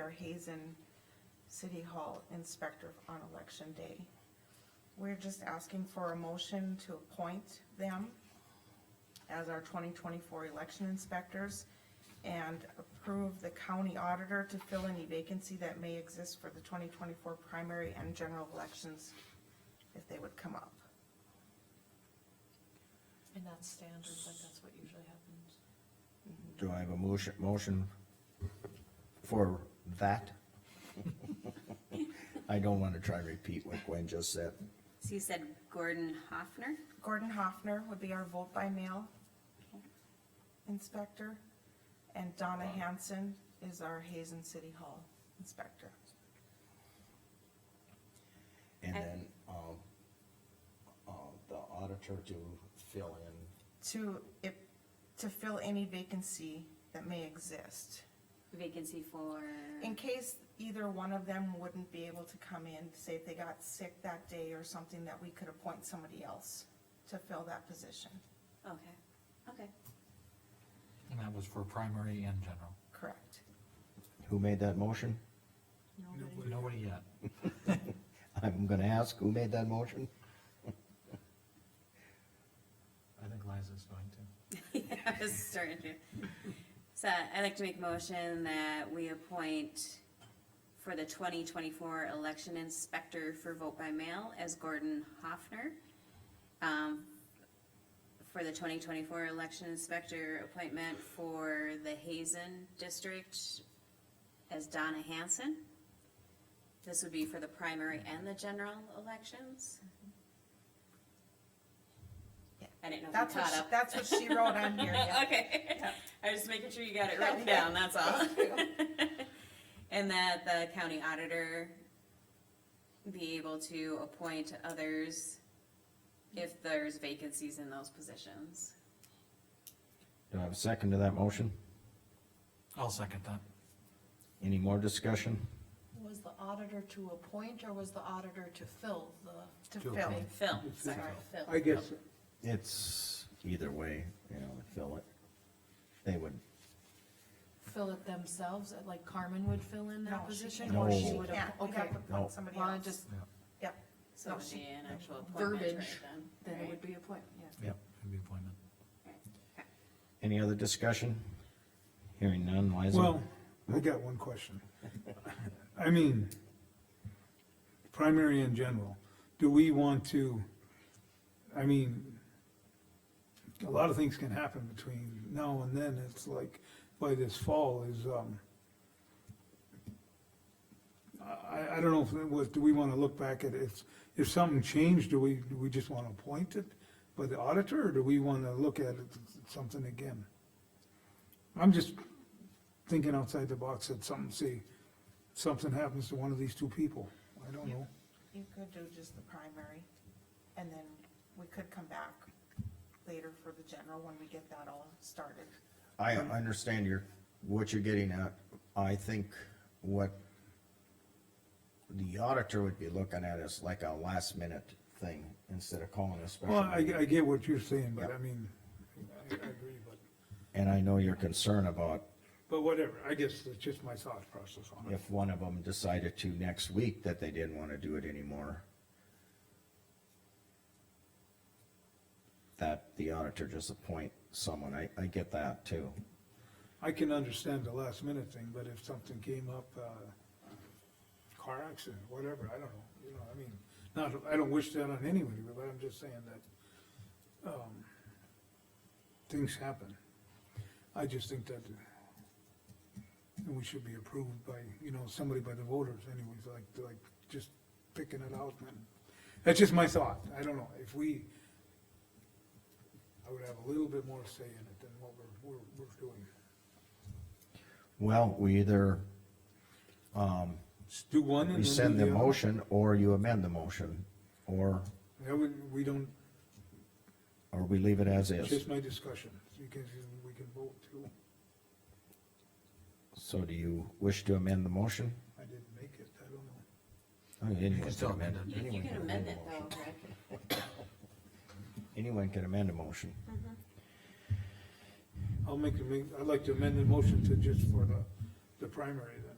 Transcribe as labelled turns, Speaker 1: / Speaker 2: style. Speaker 1: our Hazen City Hall inspector on election day. We're just asking for a motion to appoint them as our twenty twenty-four election inspectors and approve the county auditor to fill any vacancy that may exist for the twenty twenty-four primary and general elections if they would come up.
Speaker 2: And that's standard, but that's what usually happens.
Speaker 3: Do I have a motion, motion for that? I don't wanna try and repeat what Gwen just said.
Speaker 4: So you said Gordon Hoffner?
Speaker 1: Gordon Hoffner would be our vote by mail inspector, and Donna Hanson is our Hazen City Hall inspector.
Speaker 3: And
Speaker 4: I-
Speaker 3: then, um, uh, the auditor to fill in,
Speaker 1: To, if, to fill any vacancy that may exist.
Speaker 4: Vacancy for,
Speaker 1: In case either one of them wouldn't be able to come in, say if they got sick that day or something, that we could appoint somebody else to fill that position,
Speaker 4: okay, okay.
Speaker 5: And that was for primary and general.
Speaker 1: correct?
Speaker 3: who made that motion?
Speaker 5: Nobody yet.
Speaker 3: I'm gonna ask, who made that motion?
Speaker 5: I think Liza's going to.
Speaker 4: I was starting to. So I'd like to make a motion that we appoint for the twenty twenty-four election inspector for vote by mail as Gordon Hoffner. Um, For the twenty twenty-four election inspector appointment for the Hazen district as Donna Hanson. This would be for the primary and the general elections. I didn't know if
Speaker 1: That's
Speaker 4: you
Speaker 1: what,
Speaker 4: caught
Speaker 1: she-
Speaker 4: up.
Speaker 1: that's what she wrote on here, yeah.
Speaker 4: Okay, I was just making sure you got it written down, that's all. And that the county auditor be able to appoint others if there's vacancies in those positions.
Speaker 3: Do I have a second to that motion?
Speaker 5: I'll second that.
Speaker 3: Any more discussion?
Speaker 2: Was the auditor to appoint or was the auditor to fill the,
Speaker 1: to
Speaker 5: To
Speaker 1: fill.
Speaker 5: appoint.
Speaker 4: Phil, sorry,
Speaker 6: I
Speaker 4: Phil.
Speaker 6: guess,
Speaker 3: It's either way, you know, fill it. They would,
Speaker 2: fill it themselves, uh, like Carmen would fill in
Speaker 1: No,
Speaker 2: that
Speaker 1: she
Speaker 2: position?
Speaker 1: can't.
Speaker 2: Or she
Speaker 3: No.
Speaker 2: would,
Speaker 1: Yeah,
Speaker 2: have-
Speaker 1: we
Speaker 2: okay,
Speaker 1: have to
Speaker 3: No.
Speaker 1: appoint somebody
Speaker 2: well,
Speaker 1: else.
Speaker 2: just,
Speaker 5: Yeah,
Speaker 1: Yep,
Speaker 4: So it'd be an actual appointment right
Speaker 2: Verbiage.
Speaker 4: then.
Speaker 2: then it
Speaker 4: right?
Speaker 2: would be appointment, yeah.
Speaker 3: Yep.
Speaker 5: It'd be appointment.
Speaker 3: any other discussion? Hearing none, Liza?
Speaker 6: well, I got one question. I mean, primary and general, do we want to, I mean, a lot of things can happen between now and then, it's like, by this fall is, um, I, I don't know if it was, do we wanna look back at if, if something changed, do we, do we just wanna appoint it by the auditor, or do we wanna look at it, something again? I'm just thinking outside the box that something, see, something happens to one of these two people, I don't know.
Speaker 1: you could do just the primary, and then we could come back later for the general when we get that all started.
Speaker 3: I understand your, what you're getting at. I think what the auditor would be looking at is like a last minute thing instead of calling a special.
Speaker 6: Well, I,
Speaker 3: meeting.
Speaker 6: I get what you're saying, but
Speaker 3: Yeah.
Speaker 6: I mean, I, I agree, but,
Speaker 3: And I know your concern about
Speaker 6: but whatever, I guess it's just my thought process on it.
Speaker 3: if one of them decided to next week that they didn't wanna do it anymore. That the auditor just appoint someone. I, I get that too.
Speaker 6: I can understand the last minute thing, but if something came up, uh, car accident, whatever, I don't know, you know, I mean, not, I don't wish that on anybody, but I'm just saying that, um, things happen. I just think that we should be approved by, you know, somebody by the voters anyways, like, like, just picking it out, man. That's just my thought, I don't know, if we, I would have a little bit more say in it than what we're, we're, we're doing.
Speaker 3: Well, we either
Speaker 6: Just Do one and then do
Speaker 3: rescind the
Speaker 6: other.
Speaker 3: motion or you amend the motion or
Speaker 6: That would, we don't,
Speaker 3: Or we leave it as
Speaker 6: it's
Speaker 3: is?
Speaker 6: just my discussion, you can, we can vote too.
Speaker 3: So do you wish to amend the motion?
Speaker 6: I didn't make it, I don't know.
Speaker 3: I mean, Anyone
Speaker 5: still
Speaker 3: can amend it. Anyone can a
Speaker 4: You you can amend
Speaker 5: amend
Speaker 4: it
Speaker 3: motion.
Speaker 4: though, Rick.
Speaker 3: Anyone can amend a motion.
Speaker 6: I'll make, the ma- I'd like to amend the motion to just for the, the primary then.